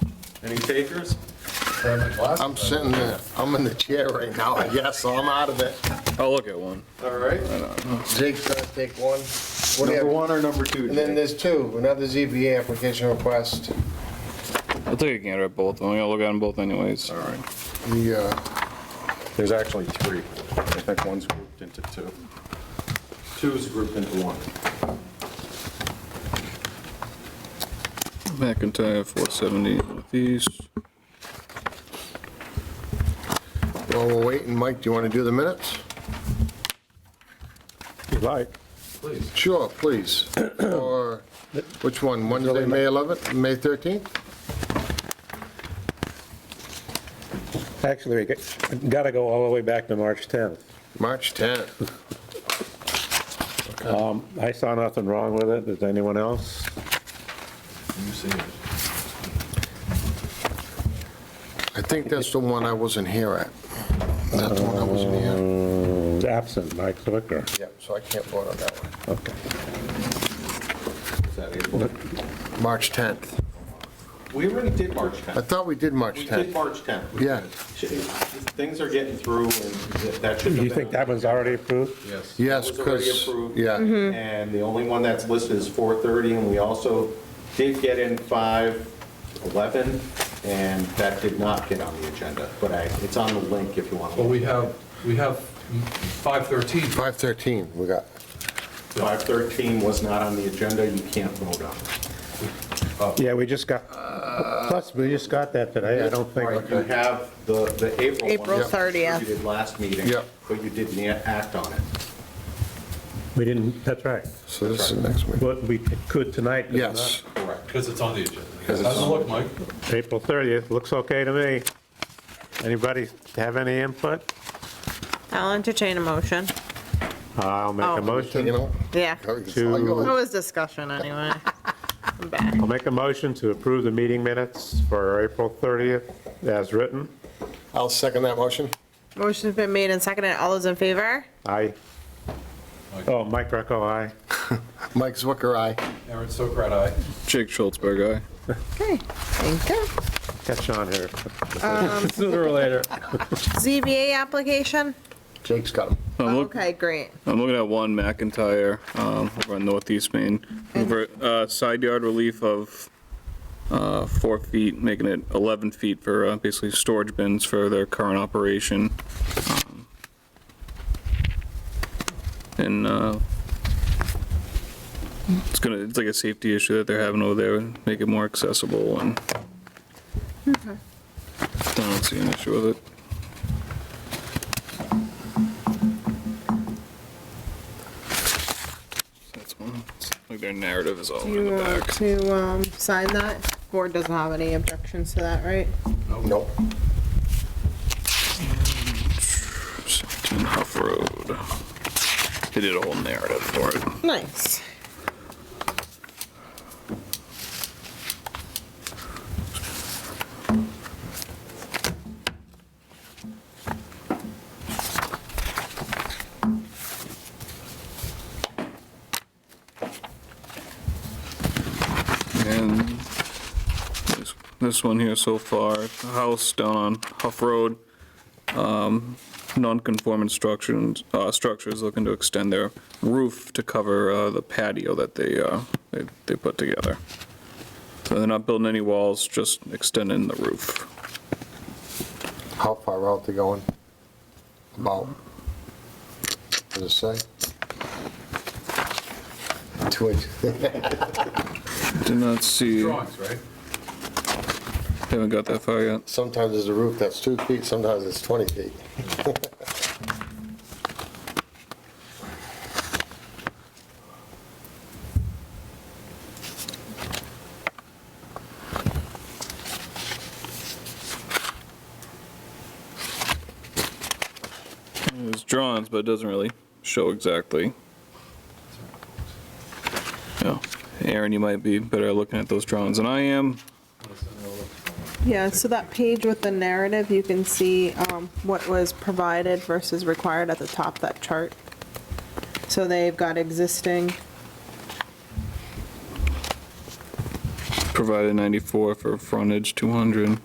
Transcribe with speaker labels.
Speaker 1: Any takers?
Speaker 2: I'm sitting, there- I'm in the chair right now, I guess, so I'm out of it.
Speaker 3: I'll look at one.
Speaker 1: All right.
Speaker 2: Jake's gonna take one. What do you
Speaker 1: Number
Speaker 2: have?
Speaker 1: one or number two?
Speaker 2: And then
Speaker 1: Jake?
Speaker 2: there's two, another ZBA application request.
Speaker 3: I'll take a gander at both. I'm gonna look at them both anyways.
Speaker 1: All right.
Speaker 2: The, uh,
Speaker 1: There's actually three. I think one's grouped into two. Two's grouped into one.
Speaker 3: McIntyre, 470 Northeast.
Speaker 2: while we're waiting, Mike, do you wanna do the minutes?
Speaker 4: you like.
Speaker 2: Sure, please. Or, which one, Wednesday, May 11th, May 13th?
Speaker 4: Actually, we got- gotta go all the way back to March 10th.
Speaker 2: March 10th.
Speaker 4: I saw nothing wrong with it. Does anyone else?
Speaker 1: You see it.
Speaker 2: I think that's the one I wasn't here at. That's the one I wasn't here.
Speaker 4: It's uh, absent, Mike Zwicker.
Speaker 2: Yeah, so I can't vote on that one.
Speaker 4: Okay.
Speaker 1: Is that April?
Speaker 2: March 10th.
Speaker 1: We already did March
Speaker 2: I
Speaker 1: 10th.
Speaker 2: thought we did March
Speaker 1: We did
Speaker 2: 10th.
Speaker 1: March 10th.
Speaker 2: Yeah,
Speaker 1: Things are getting through, and that should have been.
Speaker 4: You think that was already approved?
Speaker 1: Yes.
Speaker 2: Yes,
Speaker 1: It was already
Speaker 2: because-
Speaker 1: approved.
Speaker 2: yeah. Mhm.
Speaker 1: And the only one that's listed is 4:30, and we also did get in 5:11, and that did not get on the agenda, but I, it's on the link if you want. to
Speaker 5: Well,
Speaker 1: look.
Speaker 5: we have, we have 513.
Speaker 2: 5:13 we got.
Speaker 1: 5:13 was not on the agenda, you can't vote on it.
Speaker 4: Yeah, we just got, plus, we just got that today. I don't
Speaker 1: All right, You
Speaker 4: think,
Speaker 1: have the, the April one.
Speaker 6: April
Speaker 1: which
Speaker 6: 30th.
Speaker 1: You did last meeting.
Speaker 2: Yeah.
Speaker 1: But you didn't act on it.
Speaker 4: we didn't, that's right.
Speaker 2: So this is the next one.
Speaker 4: But we could tonight. but not-
Speaker 2: Yes.
Speaker 1: Correct.
Speaker 5: Because it's on the agenda.
Speaker 2: Because
Speaker 5: How's
Speaker 2: it's
Speaker 5: it
Speaker 2: on-
Speaker 5: look, Mike?
Speaker 4: April 30th, looks okay to me. Anybody have any input?
Speaker 6: I'll entertain a motion.
Speaker 4: I'll make
Speaker 6: Oh.
Speaker 4: a motion.
Speaker 2: You know?
Speaker 6: Yeah. It
Speaker 4: To-
Speaker 6: was discussion anyway. I'm back.
Speaker 4: I'll make a motion to approve the meeting minutes for April 30th as written.
Speaker 2: I'll second that motion.
Speaker 6: Motion's been made and seconded. All those in favor?
Speaker 4: Aye. Oh, Mike Greco, aye.
Speaker 2: Mike Zwicker, aye.
Speaker 5: Aaron Sokrat, aye.
Speaker 3: Jake Schultzberg, aye.
Speaker 6: Okay, thank you.
Speaker 4: Catch on here. Sooner or later.
Speaker 6: ZBA application?
Speaker 2: Jake's got him.
Speaker 3: I'm look-
Speaker 6: Okay, great.
Speaker 3: I'm looking at one McIntyre, um, over on Northeast Main, for, uh, side yard relief of, uh, four feet, making it 11 feet for, uh, basically storage bins for their current operation. Um, And, uh, it's gonna, it's like a safety issue that they're having over there, and make it more accessible and. I don't see an issue with it. That's one, it's like their narrative is all
Speaker 6: Do
Speaker 3: in
Speaker 6: you
Speaker 3: the
Speaker 6: want
Speaker 3: back.
Speaker 6: to um, sign that? Board doesn't have any objections to that, right?
Speaker 2: Nope.
Speaker 3: Seventeen Huff Road. They did a whole narrative for it.
Speaker 6: Nice.
Speaker 3: And this- this one here so far, the house down on Huff Road, um, non-conforming structures, uh, structures looking to extend their roof to cover, uh, the patio that they, uh, they, they put together. So they're not building any walls, just extending the roof.
Speaker 2: How far out they going? About, does it say? Two inches.
Speaker 3: Did not see,
Speaker 5: Drawings, right?
Speaker 3: haven't got that far yet.
Speaker 2: Sometimes there's a roof that's two feet, sometimes it's 20 feet.
Speaker 3: It's drawings, but it doesn't really show exactly. Yeah, Aaron, you might be better at looking at those drawings than I am.
Speaker 6: Yeah, so that page with the narrative, you can see um, what was provided versus required at the top of that chart. So they've got existing
Speaker 3: provided 94 for frontage, 200.